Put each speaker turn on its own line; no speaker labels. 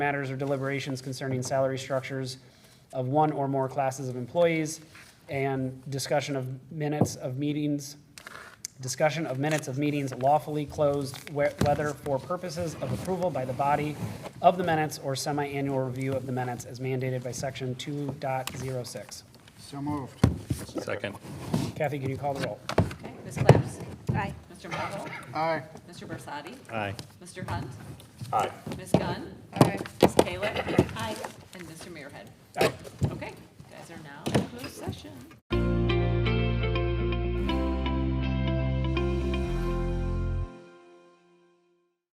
matters or deliberations concerning salary structures of one or more classes of employees, and discussion of minutes of meetings, discussion of minutes of meetings lawfully closed, whe- whether for purposes of approval by the body of the minutes or semi-annual review of the minutes as mandated by section 2.06.
So moved.
Second.
Kathy, can you call the roll?
Okay, Ms. Claps? Aye. Mr. Marvel?
Aye.
Mr. Bersadi?
Aye.
Mr. Hunt?
Aye.
Ms. Gunn? Aye. Ms. Kalick? Aye.